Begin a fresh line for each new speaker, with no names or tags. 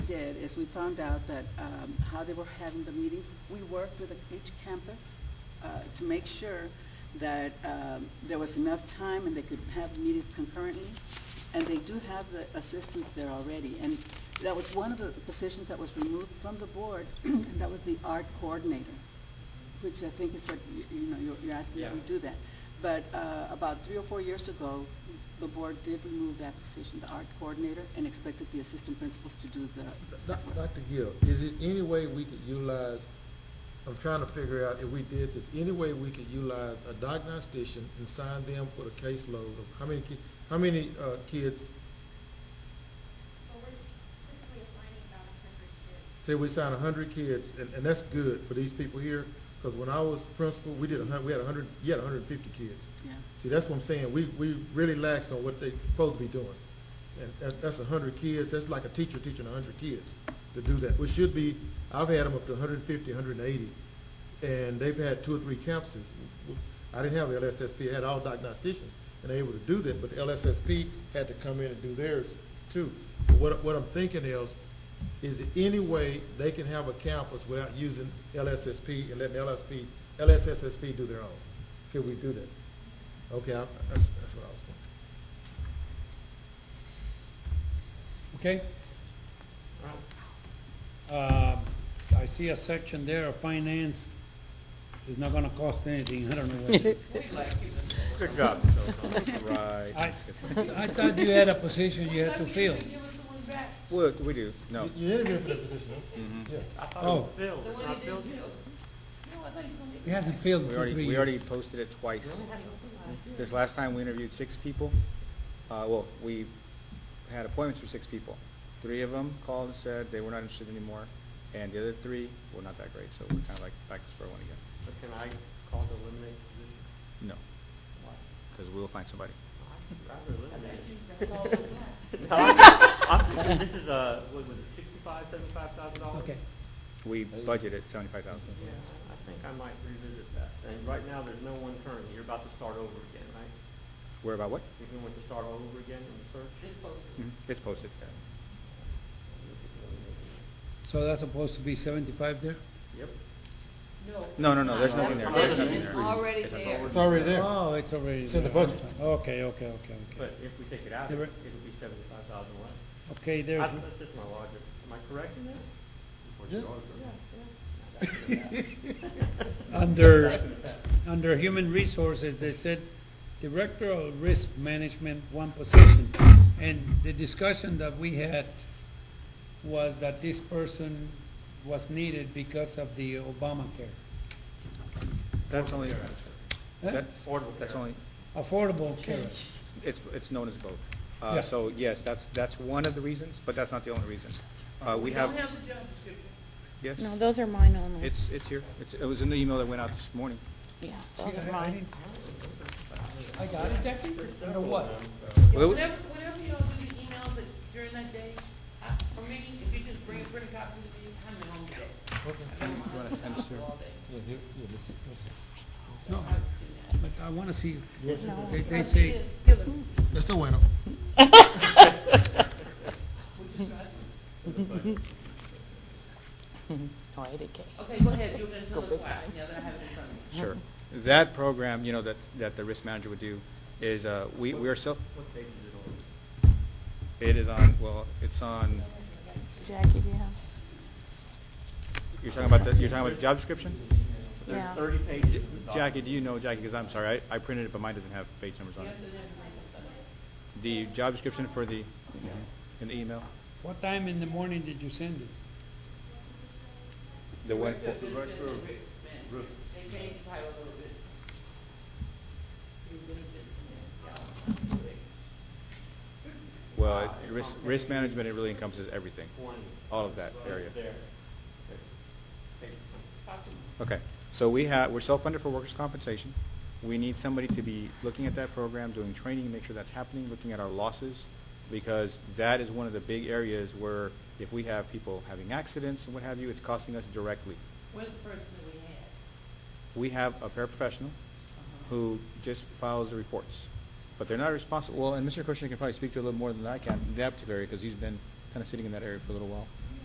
did is we found out that um, how they were having the meetings, we worked with each campus uh, to make sure that um, there was enough time and they could have meetings concurrently. And they do have the assistants there already. And that was one of the positions that was removed from the board, and that was the art coordinator, which I think is what, y- you know, you're- you're asking if we
Yeah.
do that. But uh, about three or four years ago, the board did remove that position, the art coordinator, and expected the assistant principals to do the,
Doc- Dr. Gill, is it any way we could utilize, I'm trying to figure out if we did this, any way we could utilize a diagnostician and sign them for the caseload of how many ki, how many, uh, kids,
Well, we're typically assigning about a hundred kids.
say we sign a hundred kids, and, and that's good for these people here, because when I was principal, we did a hun, we had a hundred, you had a hundred and fifty kids.
yeah.
See, that's what I'm saying, we, we really lax on what they supposed to be doing. And that, that's a hundred kids, that's like a teacher teaching a hundred kids to do that. We should be, I've had them up to hundred and fifty, hundred and eighty, and they've had two or three campuses. I didn't have LSSP, I had all diagnosticians, and they were able to do that, but LSSP had to come in and do theirs too. What, what I'm thinking is, is there any way they can have a campus without using LSSP and letting LSP, LSSSP do their own? Can we do that? Okay, I- that's, that's what I was wondering.
Okay? Um, I see a section there of finance, it's not gonna cost anything, I don't know what it is.
Good job.
I, I thought you had a position you had to fill.
Well, we do, no.
You you interviewed for that position, huh? Yeah.
Oh, he hasn't filled
We
for
already,
three
we already
years.
posted it twice. This last time, we interviewed six people. Uh, well, we had appointments for six people. Three of them called and said they were not interested anymore, and the other three were not that great, so we're kind of like back to square one again.
So can I call to eliminate the position?
No,
Why?
because we'll find somebody.
I'd rather eliminate it. No, I'm- I'm thinking this is a, what was it, sixty-five, seventy-five thousand dollars?
Okay,
We budgeted seventy-five thousand.
Yeah, I think I might revisit that. And right now, there's no one current. You're about to start over again, right?
We're about what?
You're going to start all over again in the search?
Mhm, It's posted.
so that's supposed to be seventy-five there?
Yep.
No, no, no, there's nothing there. There's nothing there.
Already
It's a-
there.
It's already there.
Oh, it's already.
It's in the
there.
budget.
Okay, okay, okay, okay.
But if we take it out,
Never-
it'll be seventy-five thousand less.
Okay,
I-
there's,
That's just my logic. Am I correct in that?
Yeah.
under, under human resources, they said director of risk management, one position. And the discussion that we had was that this person was needed because of the Obamacare.
That's only,
Huh?
that's,
Affordable
that's
care.
only,
Affordable care.
It's, it's known as both. Uh,
Yeah.
So, yes, that's, that's one of the reasons, but that's not the only reason. Uh, We have. Yes,
No, those are mine only.
it's, it's here. It's- It was in the email that went out this morning.
Yeah,
See,
those are
I- I
mine.
didn't- I got it, Jackie? Under what?
Well, it-
Whatever, whatever y'all do, the emails that during that day, I- for me, if you just bring a printed copy to me, I'm at home today. I don't mind.
wanna hand this to her?
All day.
Yeah, here- yeah, this is- this is-
No,
I've seen that.
but I want to see,
No.
they, they
But
say,
it is Hillary.
That's the winner.
No, I didn't get it.
Okay, go ahead, you're gonna tell us why, now that I have it in front of me.
Sure. That program, you know, that, that the risk manager would do is, uh, we, we are self,
What page is it on?
it is on, well, it's on,
Jackie, do you have?
you're talking about, the you're talking about the job description?
Yeah.
There's thirty pages. at the top.
Jackie, do you know, Jackie, because I'm sorry, I, I printed it, but mine doesn't have page numbers on it. The job description for the, in the email?
what time in the morning did you send it?
The one, for-
They changed the title a little bit. You benefit from that, y'all.
well, it- risk, risk management, it really encompasses everything,
Twenty.
all of that area.
There. Page
Okay, so we have, we're self-funded for workers' compensation. We need somebody to be looking at that program, doing training, make sure that's happening, looking at our losses, because that is one of the big areas where if we have people having accidents and what have you, it's costing us directly.
Where's the person that we had? Uh-huh.
We have a paraprofessional who just files the reports, but they're not responsible, well, and Mr. Kushner can probably speak to it a little more than I can in that particular area, because he's been kind of sitting in that area for a little while.